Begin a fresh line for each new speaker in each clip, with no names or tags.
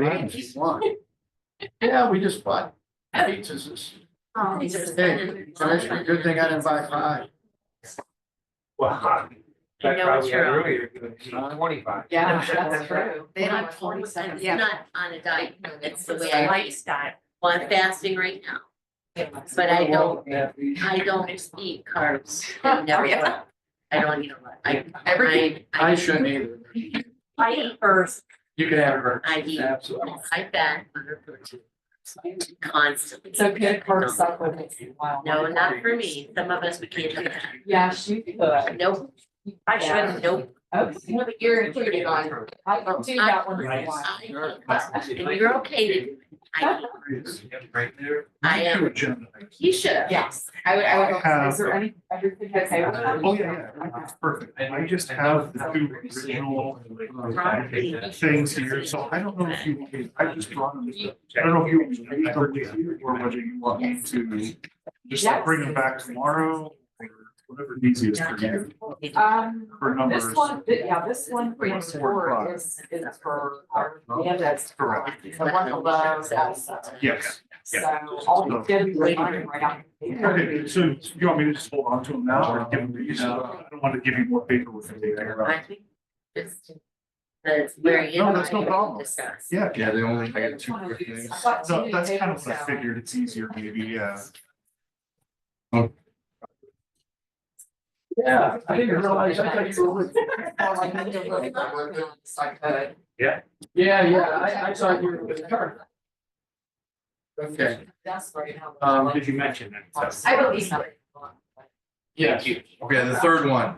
Right.
If you want.
Yeah, we just bought pizzas. It's-
These are
Hey,
spending-
it's actually a good thing I didn't buy five.
Wow.
You know it's your own.
Twenty-five.
Yeah, that's true.
They don't have
forty-seven.
It's
Yeah.
not on a diet, no, that's the
It's
way
a
I, eat.
Lifestyle.
well, I'm fasting right now, but I don't, I don't eat carbs. I never
Yeah.
will. I don't eat a lot, I,
Everything.
I,
I
I,
shouldn't either.
I eat first.
You can have her.
I eat,
Absolutely.
I fat, under protein, constantly.
It's a good for supplements. Wow.
No, not for me, some of us, we can't do that,
Yeah, she could.
nope, I shouldn't, nope,
Okay. Well, you're included on. I don't do that one.
Right.
I eat carbs, and you're okay to, do it. I, eat-
Right there.
I am, you should, yes.
Yes, I would, I would.
Uh,
also- Is there any, everything that's I
Uh,
would.
Oh, yeah, yeah, perfect. I just have the two original uh, things here, so I don't know if you, I just brought them. I don't know if you want me to read them or whether you want me to just like, bring them back tomorrow or whatever is easiest for you
Um,
for numbers.
this one, yeah, this one for
Four,
four
five.
is, is for, our-
Oh.
yeah, that's.
Correct.
The one below is outside.
Yes.
So all the good later right out.
Okay, so do you want me to just hold on to them now or give them, to you know, I don't want to give you more paper with it
I
later.
think just that's very.
No, that's no problem.
Discuss.
Yeah,
Yeah, they only,
I got two quick things.
so that's kind of what I figured. It's easier maybe, yeah.
Yeah, I didn't realize, I thought you were with. Yeah, yeah, I, I thought you were with her. Okay,
That's right now.
um,
Did you mention that?
I believe so.
yes,
Okay, the third one.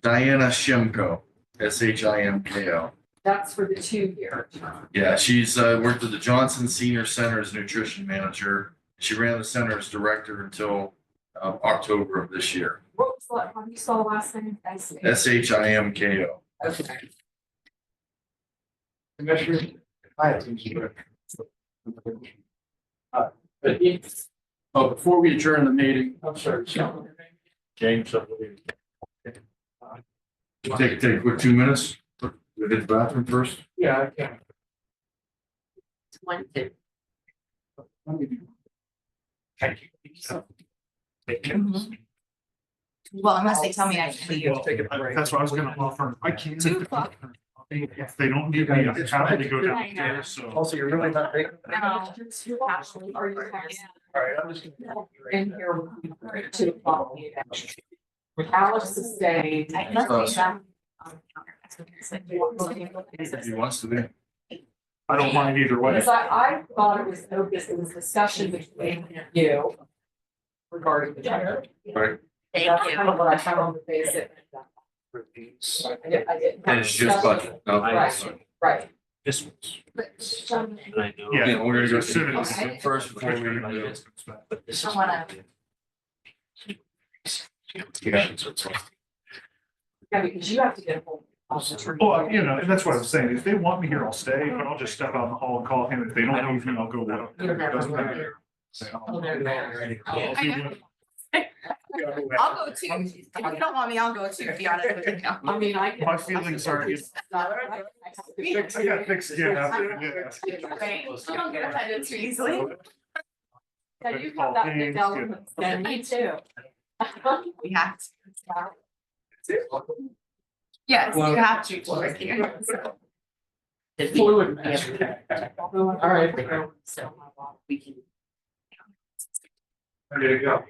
Diana Shimko, S H I M K O.
That's for the two year term.
Yeah, she's uh, worked at the Johnson Senior Center as nutrition manager. She ran the center as director until uh, October of this year.
What was that, how do you spell the last name? I see.
S H I M K O.
Okay.
Commissioner. I have things to do. Uh, But if, oh, before we adjourn the meeting, I'm sorry, so. James, I believe. Uh,
Take, take, what, two minutes? Go to the bathroom first?
Yeah, I can.
One, two,
Let me do-
Thank you. Thank
Mm-hmm.
you.
Well, unless they tell me I can leave.
Take a break.
That's what I was gonna offer. I can't.
Two o'clock.
If they don't need me, I'm happy to go downstairs, so.
Also, you're really not big.
No.
Actually, Uh, are you having
All right, I'm just gonna.
in here with two o'clock meeting? Alex is staying.
I must be done.
If he wants to be.
I don't mind either way.
Because I, I thought it was, no business. it was discussion between you regarding the charter.
thank
That's kind
you.
of what I had on the basic. I did- I did-
And it's just budget. No,
Right.
sorry.
Right.
This one. And I know.
Yeah.
Yeah, we're gonna go
Okay.
to- first before we. do-
But this
I
is.
wanna-
Yeah.
Yeah, because you have to get a hold of the attorney.
Well, you know, and that's what I'm saying. If they want me here, I'll stay, but I'll just step out in the hall and call him. If they don't need me, I'll go. with him.
You'll
It
never
doesn't
work
matter.
here.
Oh,
So-
Yeah.
If you want-
I'll go too. If you don't want me, I'll go too, to be honest with you.
I mean, I. can-
My feelings are-
It's not- I- I have to fix
I
it.
got thick skin after, yeah.
Right. I don't get offended too easily.
Yeah, you have that big
Paul
element.
Haynes,
Yeah, me too.
We have to. Yes, you have to. Doris, you-
Fluid
Although I'm-
All right.
So, my God.
We can,
There you go.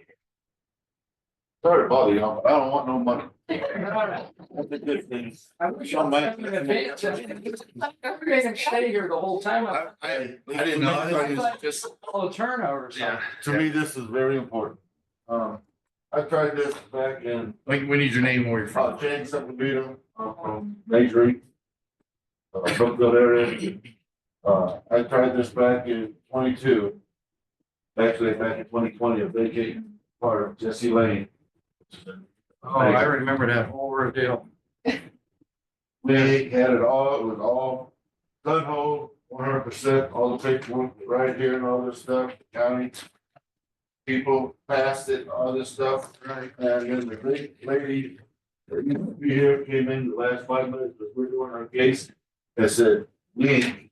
Sorry to bother you, but I don't want no money. That's a good thing. I wish I might. You guys can stay here the whole time.
I, I I didn't know. I thought it was just.
All the turnovers.
Yeah.
To me, this is very important. Um, I tried this back in,
Like, we need your name where you're
uh,
from.
James Sepulveda, uh, from Major. League, Uh, Brookfield area. Uh, I tried this back in twenty-two. Actually, back in twenty twenty, a vacant part of Jesse Lane.
Oh, I remember that whole ordeal.
We had it all, it was all gun hole, one hundred percent, all the paperwork right here and all this stuff, county. People passed it, all this stuff, and then the big lady. that used to be here came in the last five minutes, as we're doing our case, and said, we ain't